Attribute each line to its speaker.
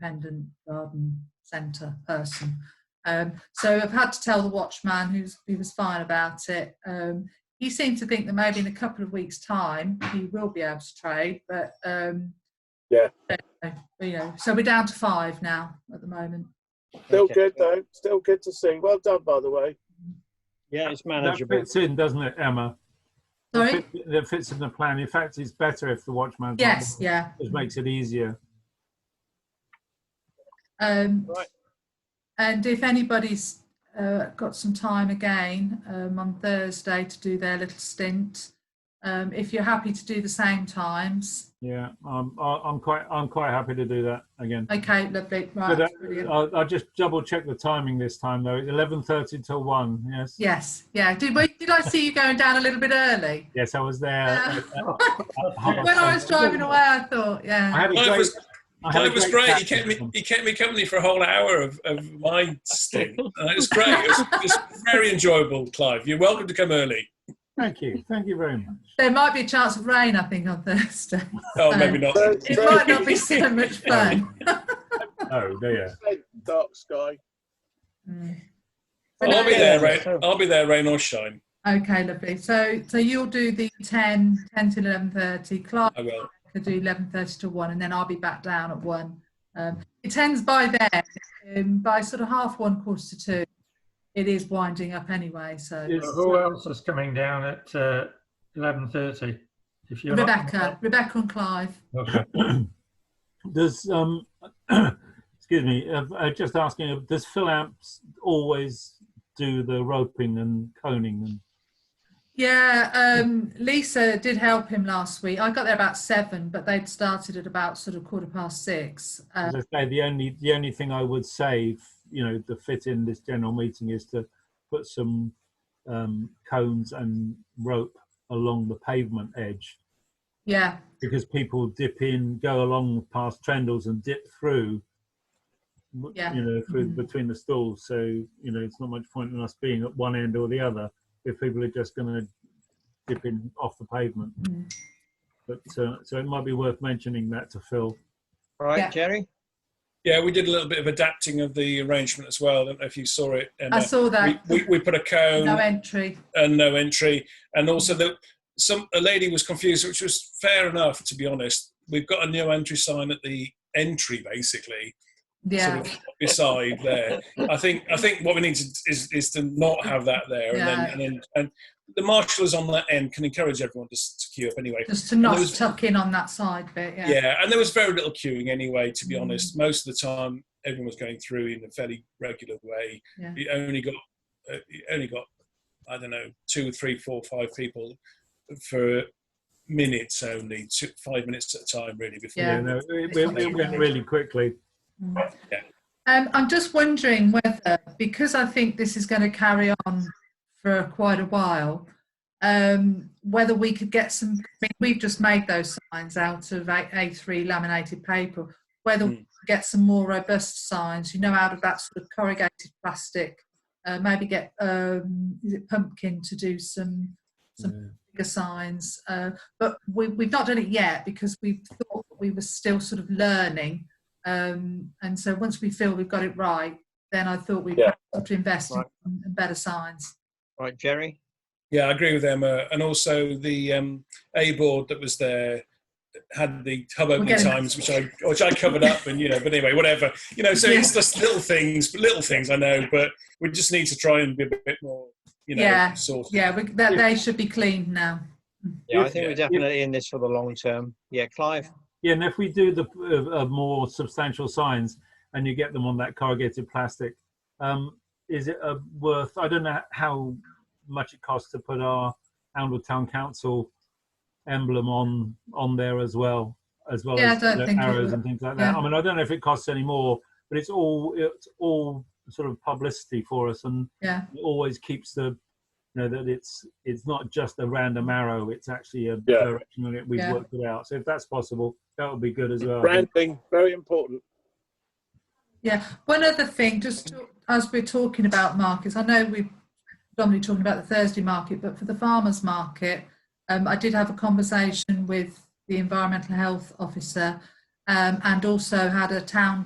Speaker 1: independent garden centre person. Um, so I've had to tell the watchman, who's he was fine about it. Um, he seemed to think that maybe in a couple of weeks' time he will be able to trade, but um,
Speaker 2: Yeah.
Speaker 1: don't know, you know, so we're down to five now at the moment.
Speaker 2: Still
Speaker 3: Okay.
Speaker 2: good though. Still good to see. Well done, by the way.
Speaker 3: Yeah, it's
Speaker 4: That
Speaker 3: manageable.
Speaker 4: fits in, doesn't it, Emma?
Speaker 1: Sorry.
Speaker 4: That fit- That fits in the plan. In fact, it's better if the watchman's not
Speaker 1: Yes,
Speaker 4: there.
Speaker 1: yeah.
Speaker 4: It makes it easier.
Speaker 1: Um,
Speaker 3: Right.
Speaker 1: And if anybody's uh, got some time again um, on Thursday to do their little stint, um, if you're happy to do the same times,
Speaker 4: Yeah, I'm, I- I'm quite, I'm quite happy to do that again.
Speaker 1: okay, lovely, right,
Speaker 4: But uh,
Speaker 1: brilliant.
Speaker 4: I'll, I'll just double check the timing this time though. It's 11:30 till one. Yes.
Speaker 1: Yes, yeah. Did, wait, did I see you going down a little bit early?
Speaker 4: Yes, I was there.
Speaker 1: Yeah.
Speaker 4: at- at- at half
Speaker 1: Uh, When I was
Speaker 4: past-
Speaker 1: driving away, I thought,
Speaker 4: I
Speaker 1: yeah,
Speaker 4: had a
Speaker 5: Clive
Speaker 4: great.
Speaker 5: was,
Speaker 4: I had a
Speaker 5: Clive was great. He
Speaker 4: chat
Speaker 5: kept
Speaker 4: with
Speaker 5: me.
Speaker 4: them.
Speaker 5: He kept me company for a whole hour of, of my stint. Uh, it was great. It was, it was very enjoyable, Clive. You're welcome to come early.
Speaker 4: Thank you. Thank you very much.
Speaker 1: there might be a chance of rain, I think, on Thursday.
Speaker 5: Oh, maybe not.
Speaker 2: Uh,
Speaker 1: It might not be so much fun.
Speaker 4: Oh, yeah.
Speaker 2: Dark sky.
Speaker 1: Mm.
Speaker 5: I'll be there, rain. I'll be there, rain or shine.
Speaker 1: Okay, lovely. So, so you'll do the 10, 10 to 11.30. Clark
Speaker 5: I will.
Speaker 1: could do 11.30 to 1 and then I'll be back down at 1. Um, it tends by then, um, by sort of half 1, quarter to 2, it is winding up anyway. So
Speaker 6: Who- Who else is coming down at uh, 11.30? If you're not-
Speaker 1: Rebecca, Rebecca and Clive.
Speaker 6: Okay.
Speaker 4: Does um, excuse me. uh, uh, just asking. uh, Does Phil Amps always do the roping and coning? And
Speaker 1: Yeah, um, Lisa did help him last week. I got there about 7, but they'd started at about sort of quarter past 6. Um,
Speaker 4: as I say, the only the only thing I would say, f- you know, to fit in this general meeting is to put some um, cones and rope along the pavement edge
Speaker 1: yeah,
Speaker 4: because people dip in, go along past trendles and dip through. w-
Speaker 1: Yeah.
Speaker 4: You know, through
Speaker 1: Mhm.
Speaker 4: between the stalls. So you know, it's not much point in us being at one end or the other if people are just going to dip in off the pavement.
Speaker 1: Mm.
Speaker 4: But uh, so it might be worth mentioning that to Phil.
Speaker 3: Right,
Speaker 1: Yeah.
Speaker 3: Jerry?
Speaker 5: Yeah, we did a little bit of adapting of the arrangement as well. I don't know if you saw it,
Speaker 1: I
Speaker 5: Emma.
Speaker 1: saw that.
Speaker 5: we, we, we um, put a cone.
Speaker 1: no entry.
Speaker 5: and no entry. And also that some a lady was confused, which was fair enough to be honest. We've got a no entry sign at the entry basically,
Speaker 1: Yeah.
Speaker 5: sort of beside there. I think I think what we need to, is is to not have that there,
Speaker 1: Yeah.
Speaker 5: and then and then and the marshals on that end can encourage everyone to, s- to queue up anyway.
Speaker 1: Just to not
Speaker 5: there was-
Speaker 1: tuck in on that side bit, yeah.
Speaker 5: Yeah, and there was very little queuing anyway. To be
Speaker 1: Mm.
Speaker 5: honest, most of the time everyone was going through in a fairly regular way.
Speaker 1: Yeah.
Speaker 5: You only got, uh, you only got, I don't know, two, three, four, five people for minutes only, two, five minutes at a time really. Before
Speaker 1: Yeah.
Speaker 4: You know, it,
Speaker 1: It's not
Speaker 4: it- it
Speaker 1: too
Speaker 4: went
Speaker 1: bad.
Speaker 4: really quickly.
Speaker 1: Mm.
Speaker 5: Yeah.
Speaker 1: Um, I'm just wondering whether, because I think this is going to carry on for quite a while, um, whether we could get some, I mean, we've just made those signs out of A- A3 laminated paper, whether we
Speaker 5: Mm.
Speaker 1: could get some more robust signs, you know, out of that sort of corrugated plastic, uh, maybe get, um, is it pumpkin to do some
Speaker 4: Yeah.
Speaker 1: bigger signs. Uh, but we, we've not done it yet because we thought that we were still sort of learning. Um, and so once we feel we've got it right, then I thought we'd
Speaker 2: Yeah.
Speaker 1: have to invest
Speaker 3: Right.
Speaker 1: in, in better signs.
Speaker 3: Right, Jerry?
Speaker 5: Yeah, I agree with Emma. And also the um, A board that was there had the hub opening
Speaker 1: getting-
Speaker 5: times, which I which I covered up, and you know. But anyway, whatever. You know, so it's just little things, little things I know. But we just need to try and be a bit more, you know,
Speaker 1: Yeah.
Speaker 5: sort.
Speaker 1: Yeah, we, that, they should be cleaned now.
Speaker 3: Yeah, I
Speaker 5: Yes,
Speaker 3: think
Speaker 5: yeah.
Speaker 3: we're definitely in this for the long term. Yeah, Clive?
Speaker 4: Yeah, and if we do the uh, uh, more substantial signs and you get them on that corrugated plastic, um, is it uh, worth? I don't know how much it costs to put our Oundle Town Council emblem on on there as well, as well
Speaker 1: Yeah, I
Speaker 4: as
Speaker 1: don't
Speaker 4: the
Speaker 1: think it
Speaker 4: arrows
Speaker 1: would.
Speaker 4: and things like that.
Speaker 1: Yeah.
Speaker 4: I mean, I don't know if it costs any more, but it's all it's all sort of publicity for us and
Speaker 1: Yeah.
Speaker 4: it always keeps the you know that it's it's not just a random arrow it's actually a
Speaker 2: Yeah.
Speaker 4: direction that we've
Speaker 1: Yeah.
Speaker 4: worked it out so if that's possible that would be good as well
Speaker 2: Branding very important.
Speaker 1: One other thing, just to- as we're talking about markets, I know we're predominantly talking about the Thursday market, but for the farmers market, um, I did have a conversation with the environmental health officer um, and also had a town